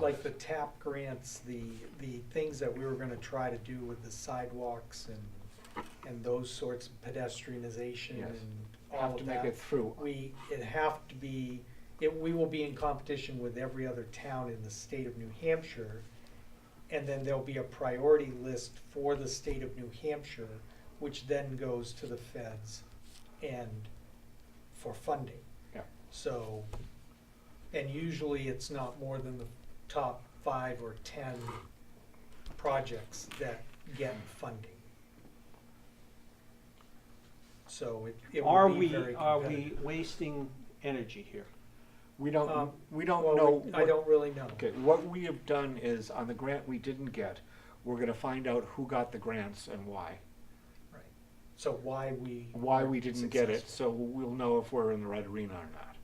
like the TAP grants, the, the things that we were gonna try to do with the sidewalks and, and those sorts of pedestrianization Yes. and all Have to of make it that. through. We, it have to be, it, we will be in competition with every other town in the state of New Hampshire. And then there'll be a priority list for the state of New Hampshire, which then goes to the feds and for funding. Yeah. So, and usually it's not more than the top five or ten projects that get funding. So it, it Are would be we, very are we competitive. wasting energy here? We don't, Um, we don't Well, know. we- I what- don't really know. Okay, what we have done is, on the grant we didn't get, we're gonna find out who got the grants and why. Right. So why we. Why weren't we didn't get it, successful. so we'll know if we're in the right arena or not.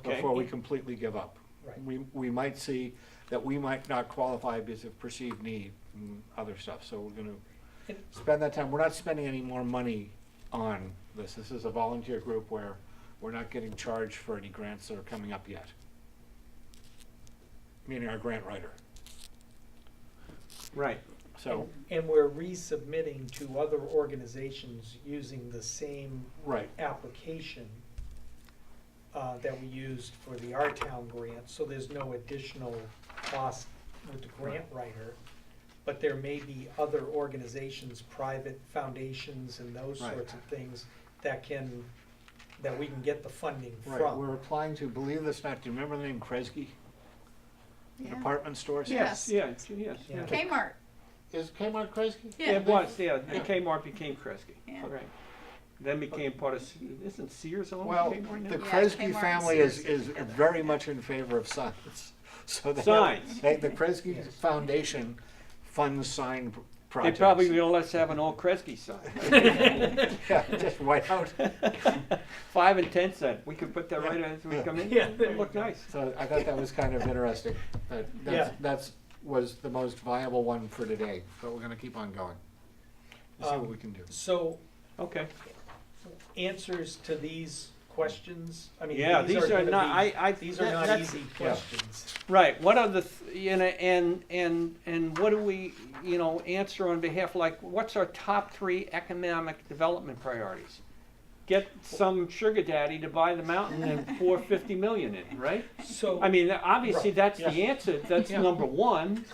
Okay, Before we completely give up. Right. We, we might see that we might not qualify because of perceived need and other stuff, so we're gonna And- spend that time, we're not spending any more money on this. This is a volunteer group where we're not getting charged for any grants that are coming up yet. Meaning our grant writer, right, so, And we're resubmitting to other organizations using the same right, application uh, that we used for the Our Town grant, so there's no additional cost with the grant writer. But there may be other organizations, private foundations and those Right. sorts of things that can, that we can get the funding right, from. we're applying to, believe this or not, do you remember the name Kresge? Yeah. Department stores? yes, Yes. yeah, yes, yeah. Okay. Kmart, Is Kmart Kresge? Yeah. It was, yeah, the Yeah. Kmart became Kresge, Yeah. right. Then became part of, Se- isn't Sears owned Well, by Kmart the now? Yeah, Kresge Kmart and family is, Sears is are together. very much in favor of signs. So they- Signs. they- The Kresge Yes. Foundation funds sign pr- They projects. probably gonna let us have an old Kresge sign, Yeah, just white out. five and ten cent, we could put that right as we come in, Yeah, there it'll you look go. nice. So I thought that was kind of interesting. That, that's, Yeah. that's, was the most viable one for today, but we're gonna keep on going. We'll See what we can do. Um, So Okay, answers to these questions, I mean, yeah, these are gonna not, be- I, I. These are that- not that's- easy questions. Right, what are the, th- you know, and, and, and what do we, you know, answer on behalf, like, what's our top three economic development priorities? Get some sugar daddy to buy the mountain and pour fifty million in, right? So. I mean, obviously, Right, that's the answer, that's Yeah. number one,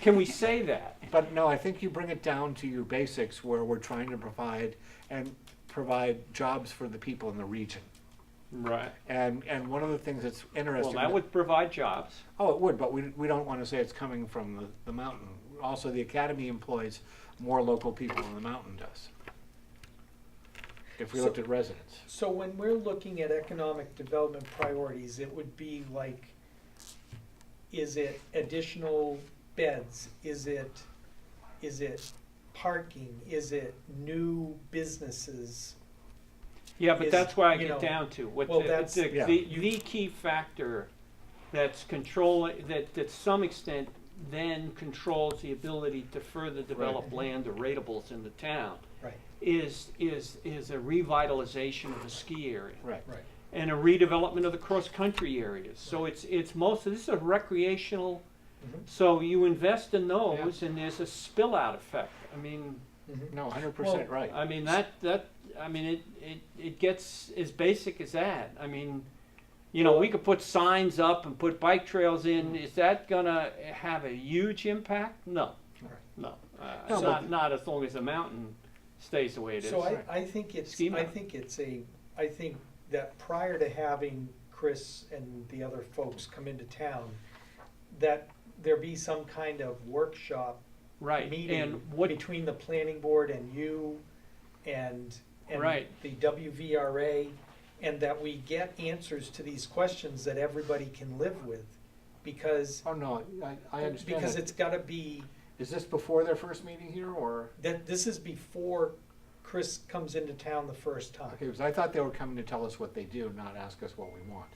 can we say that? But no, I think you bring it down to your basics where we're trying to provide and provide jobs for the people in the region. Right. And, and one of the things that's Well, interesting. that would provide jobs, Oh, it would, but we, we don't want to say it's coming from the, the mountain. Also, the academy employs more local people than the mountain does. If we So- looked at residents. So when we're looking at economic development priorities, it would be like, is it additional beds? Is it, is it parking? Is it new businesses? yeah, but Is, that's where I you know, get down to, what well, the, that's- the, Yeah. the, the key factor that's controlling, that, that some extent then controls the ability to further develop land or rateables in the town, Right, is, is, is a revitalization of the ski area. Right. right. and a redevelopment of the cross-country areas. So it's, it's mostly, this is a recreational, Mhm. so you invest in those and there's a spill out effect. I mean, Mhm. No, hundred percent right. I mean, that, that, I mean, it, it, it gets as basic as that. I mean, you know, we could put signs up and put bike trails in. Mm-hmm. Is that gonna have a huge impact? No, All right. no. Uh, No, Not, but- not as long as the mountain stays the way it is. So I, I think it's, Schema. I think it's a, I think that prior to having Chris and the other folks come into town, that there be some kind of workshop Right, and meeting what between the planning board and you and, and Right. the WVRA, and that we get answers to these questions that everybody can live with, because, Oh, no, I, I understand because that. it's gotta be, Is this before their first meeting here or? that, this is before Chris comes into town the first Okay, time. because I thought they were coming to tell us what they do, not ask us what we want.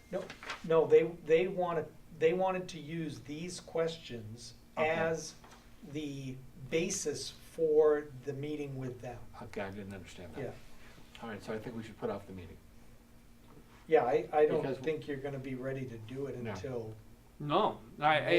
No, they, they wanted, they wanted to use these questions Okay. as the basis for the meeting with them, Okay, I didn't understand that. yeah. All right, so I think we should put off the meeting. Yeah, I, I Because- don't think you're gonna be ready to do it No. until No, I, I,